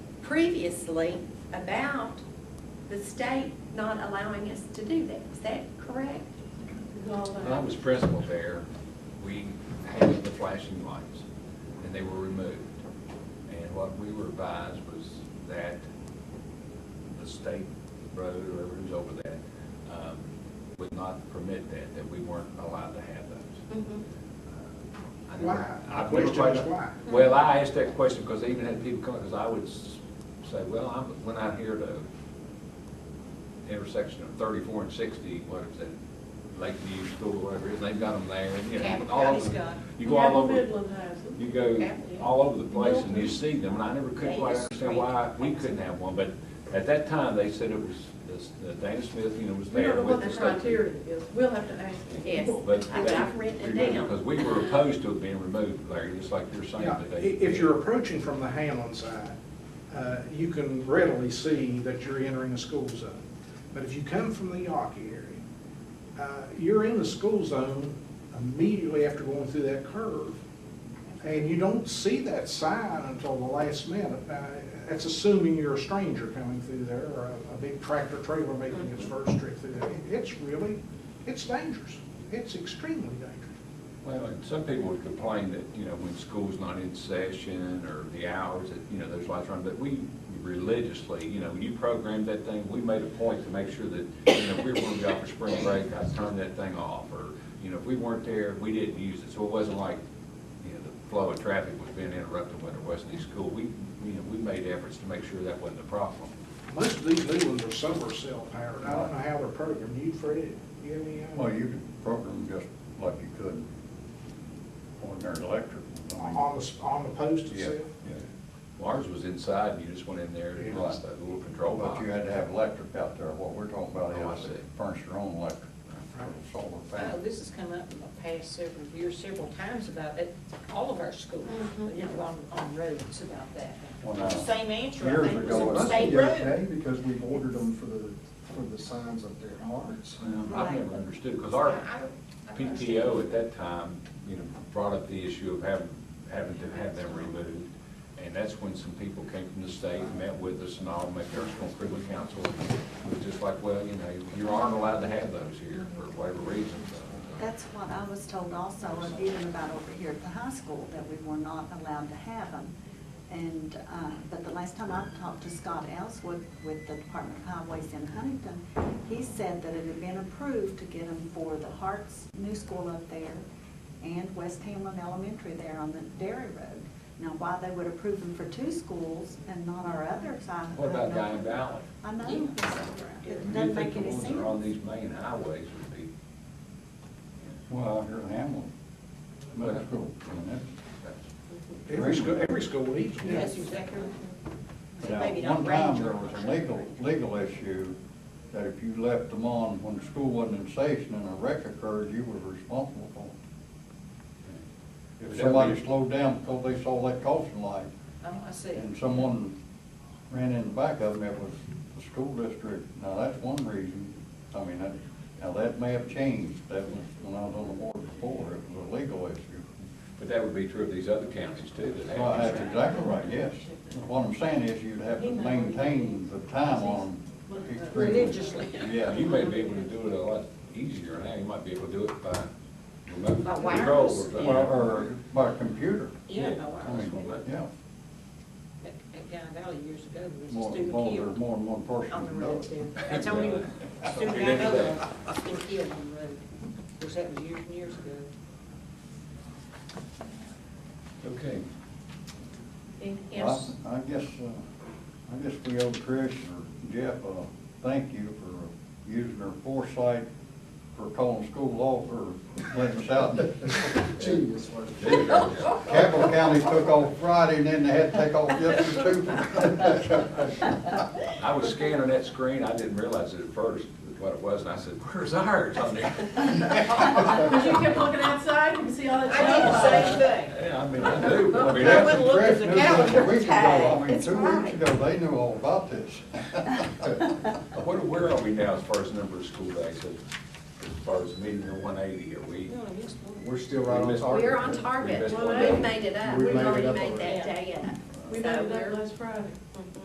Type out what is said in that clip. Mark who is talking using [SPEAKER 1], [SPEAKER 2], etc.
[SPEAKER 1] previously about the state not allowing us to do that. Is that correct?
[SPEAKER 2] When I was principal there, we had the flashing lights, and they were removed. And what we were advised was that the state road, or whoever was over that, um, would not permit that, that we weren't allowed to have those. Uh, I never-
[SPEAKER 3] Why?
[SPEAKER 2] I've
[SPEAKER 3] The
[SPEAKER 2] never
[SPEAKER 3] question is
[SPEAKER 2] quite-
[SPEAKER 3] why?
[SPEAKER 2] Well, I asked that question because they even had people come, because I would s- say, well, I went out here to intersection of thirty-four and sixty, what is that, Lakeview School, whatever it is, they've got them there, and, you know,
[SPEAKER 1] Capital
[SPEAKER 2] all
[SPEAKER 1] County's
[SPEAKER 2] over.
[SPEAKER 1] got 'em.
[SPEAKER 2] You go all over,
[SPEAKER 4] Midland has them.
[SPEAKER 2] you go
[SPEAKER 1] Capital.
[SPEAKER 2] all over the place and you see them, and I never could
[SPEAKER 1] Dana
[SPEAKER 2] quite understand why
[SPEAKER 1] Street.
[SPEAKER 2] we couldn't have one, but at that time, they said it was, this- uh, Dana Smith, you know, was
[SPEAKER 4] We don't
[SPEAKER 2] there
[SPEAKER 4] know what
[SPEAKER 2] with
[SPEAKER 4] the
[SPEAKER 2] the state.
[SPEAKER 4] criteria is, we'll have to ask them.
[SPEAKER 1] Yes,
[SPEAKER 2] But
[SPEAKER 1] I've
[SPEAKER 2] they
[SPEAKER 1] I've written it
[SPEAKER 2] removed it Because
[SPEAKER 1] down.
[SPEAKER 2] we were opposed to it being removed, Larry, just like you're saying
[SPEAKER 3] Yeah, i-
[SPEAKER 2] today.
[SPEAKER 3] if you're approaching from the Hamlin side, uh, you can readily see that you're entering a school zone. But if you come from the Yawkey area, uh, you're in the school zone immediately after going through that curve. And you don't see that sign until the last minute. Now, That's assuming you're a stranger coming through there or a- a big tractor trailer making its first trip through there. It's really, it's dangerous. It's extremely dangerous.
[SPEAKER 2] Well, and some people would complain that, you know, when school's not in session or the hours that, you know, those lights are on, but we religiously, you know, you programmed that thing, we made a point to make sure that, you know, if we were gonna be out for spring break, I turned that thing off, or, you know, if we weren't there, we didn't use it, so it wasn't like, you know, the flow of traffic was being interrupted when there wasn't any school, we, you know, we made efforts to make sure that wasn't a problem.
[SPEAKER 3] Most of these new ones are solar cell powered. I don't know how they're programmed. You, Fred, you have any? idea?
[SPEAKER 5] Well, you could program just like you could ordinary electric. I mean,
[SPEAKER 3] On the, s- on the post
[SPEAKER 5] Yeah,
[SPEAKER 3] itself?
[SPEAKER 5] yeah.
[SPEAKER 2] Ours was inside, and you just went in there, and
[SPEAKER 5] Yeah.
[SPEAKER 2] lost that little control box.
[SPEAKER 5] But you had to have electric out there. What we're talking about
[SPEAKER 2] Oh, I
[SPEAKER 5] is
[SPEAKER 2] see.
[SPEAKER 5] furnish your own electric, uh, solar
[SPEAKER 6] Oh,
[SPEAKER 5] panel.
[SPEAKER 6] this has come up in the past several years, several times about it, all of our schools,
[SPEAKER 4] Mm-hmm.
[SPEAKER 6] you know, on, on roads about that.
[SPEAKER 5] Well, now,
[SPEAKER 6] Same answer, I
[SPEAKER 5] years
[SPEAKER 6] think,
[SPEAKER 5] ago,
[SPEAKER 6] was
[SPEAKER 5] it
[SPEAKER 6] on
[SPEAKER 5] was
[SPEAKER 6] state
[SPEAKER 5] the
[SPEAKER 6] road.
[SPEAKER 7] because we've ordered them for the, for the signs up there at Hart's.
[SPEAKER 2] Um, I've never understood, because our
[SPEAKER 6] I- I don't- I don't
[SPEAKER 2] PTO
[SPEAKER 6] understand.
[SPEAKER 2] at that time, you know, brought up the issue of having, having to have them removed. And that's when some people came from the state, and met with us and all, met our school improvement council. It was just like, well, you know, you aren't allowed to have those here for whatever reason. so.
[SPEAKER 8] That's what I was told also, and even about over here at the high school, that we were not allowed to have them. And, uh, but the last time I talked to Scott Ellswood with the Department of Highways in Huntington, he said that it had been approved to get them for the Hart's new school up there and West Hamlin Elementary there on the Dairy Road. Now, why they would approve them for two schools and not our others, I.
[SPEAKER 2] What
[SPEAKER 8] I
[SPEAKER 2] about
[SPEAKER 8] don't-
[SPEAKER 2] Guy Valley?
[SPEAKER 8] I know. It
[SPEAKER 2] You
[SPEAKER 8] doesn't
[SPEAKER 2] think
[SPEAKER 8] make
[SPEAKER 2] the
[SPEAKER 8] any
[SPEAKER 2] ones
[SPEAKER 8] sense.
[SPEAKER 2] that are on these main highways would be,
[SPEAKER 5] Well, out here in Hamlin, middle school, you know,
[SPEAKER 2] that's-
[SPEAKER 3] Every school, every school needs one.
[SPEAKER 6] Yes, exactly. So
[SPEAKER 5] Now,
[SPEAKER 6] maybe not
[SPEAKER 5] One
[SPEAKER 6] range
[SPEAKER 5] time, there
[SPEAKER 6] or-
[SPEAKER 5] was a legal, legal issue that if you left them on when the school wasn't in session and a wreck occurred, you were responsible for it.
[SPEAKER 2] Would that
[SPEAKER 5] If
[SPEAKER 2] be-
[SPEAKER 5] somebody slowed down because they saw that caution light
[SPEAKER 6] Oh, I see.
[SPEAKER 5] and someone ran in the back of them, it was the school district. Now, that's one reason. I mean, that, now that may have changed. That was when I was on the board before, it was a legal issue.
[SPEAKER 2] But that would be true of these other counties too that
[SPEAKER 5] Well,
[SPEAKER 2] have.
[SPEAKER 5] that's
[SPEAKER 2] these.
[SPEAKER 5] exactly right, yes. What I'm saying is you'd have to maintain the time on them. extremely-
[SPEAKER 6] Religiously.
[SPEAKER 2] Yeah,
[SPEAKER 5] Yeah,
[SPEAKER 2] you may be able to do it a lot easier now, you might be able to do it by remote
[SPEAKER 6] By
[SPEAKER 2] control. or
[SPEAKER 6] wireless, yeah.
[SPEAKER 2] something.
[SPEAKER 5] well, or by computer.
[SPEAKER 6] Yeah, by
[SPEAKER 5] I
[SPEAKER 6] wireless.
[SPEAKER 5] mean, yeah,
[SPEAKER 6] At at Guy Valley years ago, there was
[SPEAKER 5] more,
[SPEAKER 6] a student
[SPEAKER 5] more, there's
[SPEAKER 6] killed
[SPEAKER 5] more than one person.
[SPEAKER 6] on the
[SPEAKER 5] can do
[SPEAKER 6] road
[SPEAKER 5] it.
[SPEAKER 6] there. That's only
[SPEAKER 2] Yeah.
[SPEAKER 6] a student I know of, student killed on the road. Of course, that was years and years ago.
[SPEAKER 2] Okay.
[SPEAKER 1] Anything
[SPEAKER 5] Well,
[SPEAKER 1] else?
[SPEAKER 5] I I guess, uh, I guess we owe Trish or Jeff a thank you for using their foresight for calling school off or letting us out.
[SPEAKER 7] Genius, wasn't it?
[SPEAKER 2] There you go.
[SPEAKER 5] Capital County took off Friday, and then they had to take off yesterday too.
[SPEAKER 2] I was scanning that screen, I didn't realize it at first, what it was, and I said, where's ours on there?
[SPEAKER 4] Because you kept looking outside, you can see all that.
[SPEAKER 6] I did the same thing.
[SPEAKER 2] Yeah, I mean, I knew. I mean,
[SPEAKER 6] I wouldn't
[SPEAKER 2] that's-
[SPEAKER 6] look at the
[SPEAKER 5] Congressional was a
[SPEAKER 6] calendar.
[SPEAKER 5] week ago. I mean,
[SPEAKER 8] It's
[SPEAKER 5] Two
[SPEAKER 8] Friday.
[SPEAKER 5] weeks ago, they knew all about this.
[SPEAKER 2] What, where are we now as far as number of school days, as as far as meeting the one eighty, are we?
[SPEAKER 6] You only missed one.
[SPEAKER 7] We're still right on
[SPEAKER 2] We missed-
[SPEAKER 7] target.
[SPEAKER 1] We're on target.
[SPEAKER 2] We missed
[SPEAKER 1] We've
[SPEAKER 2] one day.
[SPEAKER 1] made it up.
[SPEAKER 7] We
[SPEAKER 1] We've
[SPEAKER 7] made it
[SPEAKER 1] already
[SPEAKER 7] up
[SPEAKER 1] made
[SPEAKER 7] already.
[SPEAKER 1] that day up.
[SPEAKER 4] We made
[SPEAKER 1] So
[SPEAKER 4] it
[SPEAKER 1] we're-
[SPEAKER 4] up last Friday.